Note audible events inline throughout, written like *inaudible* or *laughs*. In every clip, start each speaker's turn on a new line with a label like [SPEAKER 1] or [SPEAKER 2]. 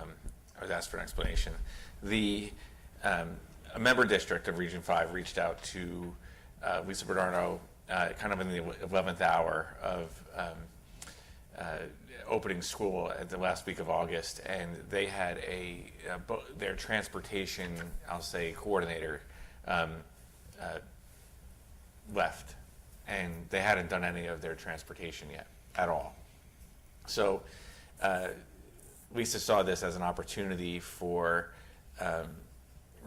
[SPEAKER 1] um, was asked for an explanation. The, um, a member district of Region Five reached out to uh, Lisa Bernardo, uh, kind of in the eleventh hour of um, uh, opening school at the last week of August, and they had a, a bo- their transportation, I'll say, coordinator um, uh, left, and they hadn't done any of their transportation yet at all. So uh, Lisa saw this as an opportunity for um,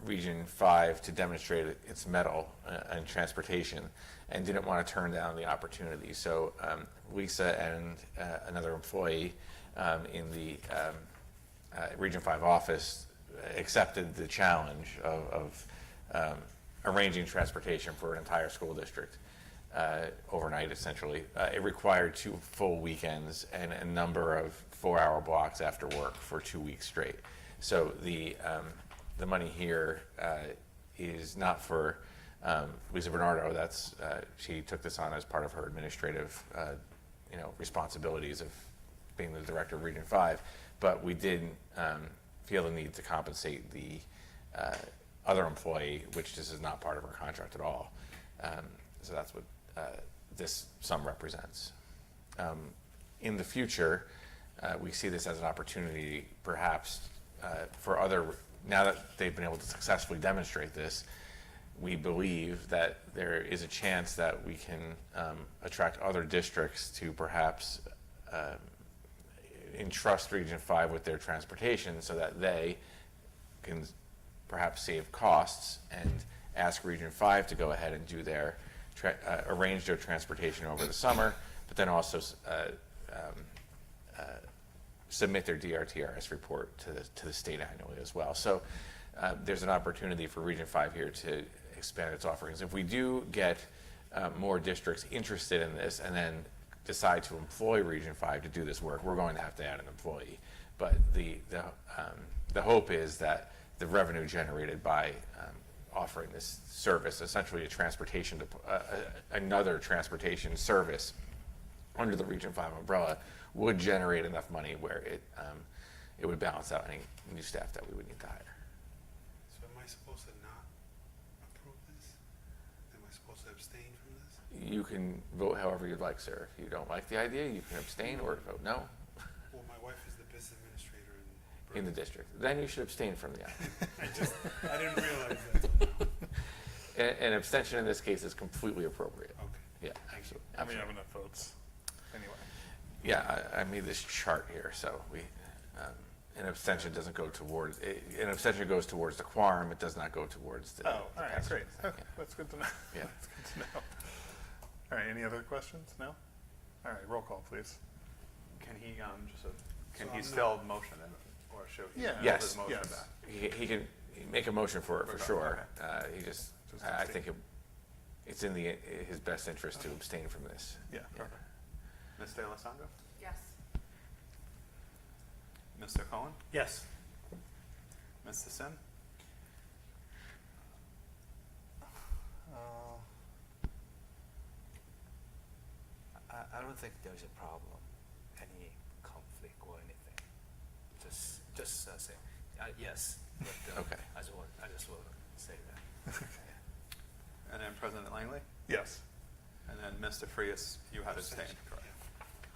[SPEAKER 1] Region 5 to demonstrate its mettle uh, in transportation and didn't want to turn down the opportunity. So um, Lisa and uh, another employee um, in the um, uh, Region 5 office accepted the challenge of, of um, arranging transportation for an entire school district uh, overnight, essentially. Uh, It required two full weekends and a number of four-hour blocks after work for two weeks straight. So the, um, the money here uh, is not for um, Lisa Bernardo, that's, uh, she took this on as part of her administrative, uh, you know, responsibilities of being the director of Region 5, but we did um, feel the need to compensate the uh, other employee, which this is not part of her contract at all. Um, So that's what uh, this sum represents. Um, In the future, uh, we see this as an opportunity perhaps uh, for other, now that they've been able to successfully demonstrate this, we believe that there is a chance that we can um, attract other districts to perhaps entrust Region Five with their transportation so that they can perhaps save costs and ask Region Five to go ahead and do their, tra- uh, arrange their transportation over the summer, but then also uh, submit their DRTRS report to the, to the state annually as well. So uh, there's an opportunity for Region 5 here to expand its offerings. If we do get uh, more districts interested in this and then decide to employ Region 5 to do this work, we're going to have to add an employee. But the, the, um, the hope is that the revenue generated by um, offering this service, essentially a transportation, dep- uh, uh, another transportation service, under the Region Five umbrella would generate enough money where it, um, it would balance out any new staff that we would need to hire.
[SPEAKER 2] So am I supposed to not approve this? Am I supposed to abstain from this?
[SPEAKER 1] You can vote however you'd like, sir. If you don't like the idea, you can abstain or vote no
[SPEAKER 2] Well, my wife is the business administrator in.
[SPEAKER 1] in the district. Then you should abstain from the item.
[SPEAKER 2] *laughs*
[SPEAKER 3] *laughs*
[SPEAKER 2] I just, I didn't realize that.
[SPEAKER 1] *laughs* An, an abstention in this case is completely appropriate.
[SPEAKER 2] Okay.
[SPEAKER 1] Yeah, absolutely.
[SPEAKER 3] I mean, you have enough votes. Anyway,
[SPEAKER 1] Yeah, I, I made this chart here, so we, um, an abstention doesn't go towards, it- an abstention goes towards the quorum. It does not go towards the.
[SPEAKER 3] oh, all
[SPEAKER 1] the
[SPEAKER 3] right,
[SPEAKER 1] passage.
[SPEAKER 3] great.
[SPEAKER 1] Yeah.
[SPEAKER 3] Okay, That's good to know.
[SPEAKER 1] Yeah.
[SPEAKER 3] *laughs* That's good to know. All right, any other questions? No? All right, roll call, please.
[SPEAKER 4] Can he, um, just a, can
[SPEAKER 2] So
[SPEAKER 4] he
[SPEAKER 2] I'm
[SPEAKER 4] still motion it, or should he?
[SPEAKER 3] Yeah.
[SPEAKER 4] hold
[SPEAKER 1] Yes,
[SPEAKER 4] his motion
[SPEAKER 3] yes.
[SPEAKER 4] back?
[SPEAKER 1] He, he can make a motion for it, for
[SPEAKER 4] Okay.
[SPEAKER 1] sure. Uh, he just,
[SPEAKER 3] Just
[SPEAKER 1] I I
[SPEAKER 3] abstain.
[SPEAKER 1] think it- it's in the, his best interest to abstain from this.
[SPEAKER 3] Yeah, perfect.
[SPEAKER 4] Ms. DeLisandro?
[SPEAKER 5] Yes.
[SPEAKER 4] Mr. Cohen?
[SPEAKER 3] Yes.
[SPEAKER 4] Mr. Sim?
[SPEAKER 6] Uh,
[SPEAKER 7] I, I don't think there's a problem, any conflict or anything. Just, just uh, say, uh, yes, but, uh,
[SPEAKER 1] Okay.
[SPEAKER 7] I just want, I just want to say that.
[SPEAKER 4] And then President Langley?
[SPEAKER 3] *laughs* Yes.
[SPEAKER 4] And then Mr. Frias, you had abstained, correct?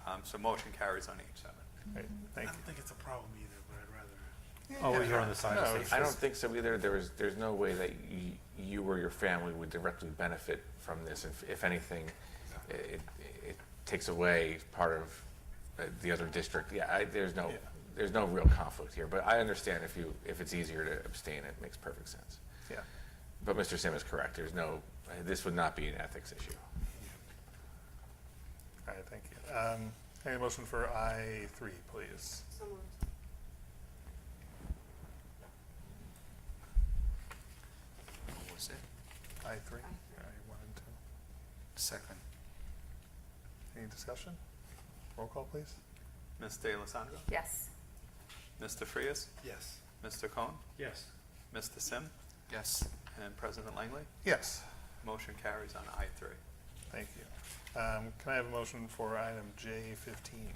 [SPEAKER 2] Yeah.
[SPEAKER 4] Um, so motion carries on each seven.
[SPEAKER 3] Great,
[SPEAKER 2] I
[SPEAKER 3] thank
[SPEAKER 2] don't think it's a problem either, but I'd rather.
[SPEAKER 3] you.
[SPEAKER 6] Oh, you're on the side of
[SPEAKER 3] No,
[SPEAKER 6] safety.
[SPEAKER 3] it's
[SPEAKER 1] I don't
[SPEAKER 3] just-
[SPEAKER 1] think so either. There was, there's no way that you, you or your family would directly benefit from this. If, if anything, i- it, it takes away part of uh, the other district. Yeah, I, there's no,
[SPEAKER 3] Yeah.
[SPEAKER 1] there's no real conflict here, but I understand if you, if it's easier to abstain, it makes perfect sense.
[SPEAKER 3] Yeah.
[SPEAKER 1] But Mr. Sim is correct. There's no, uh, this would not be an ethics issue.
[SPEAKER 3] All right, thank you. Um, Any motion for I three, please?
[SPEAKER 5] So moved.
[SPEAKER 7] What was it?
[SPEAKER 3] I three?
[SPEAKER 5] Aye.
[SPEAKER 3] All right, one and two.
[SPEAKER 7] Second.
[SPEAKER 3] Any discussion? Roll call, please.
[SPEAKER 4] Ms. DeLisandro?
[SPEAKER 5] Yes.
[SPEAKER 4] Mr. Frias?
[SPEAKER 2] Yes.
[SPEAKER 4] Mr. Cohen?
[SPEAKER 6] Yes.
[SPEAKER 4] Mr. Sim?
[SPEAKER 7] Yes.
[SPEAKER 4] And President Langley?
[SPEAKER 3] Yes,
[SPEAKER 4] Motion carries on I three.
[SPEAKER 3] thank you. Um, Can I have a motion for item J fifteen,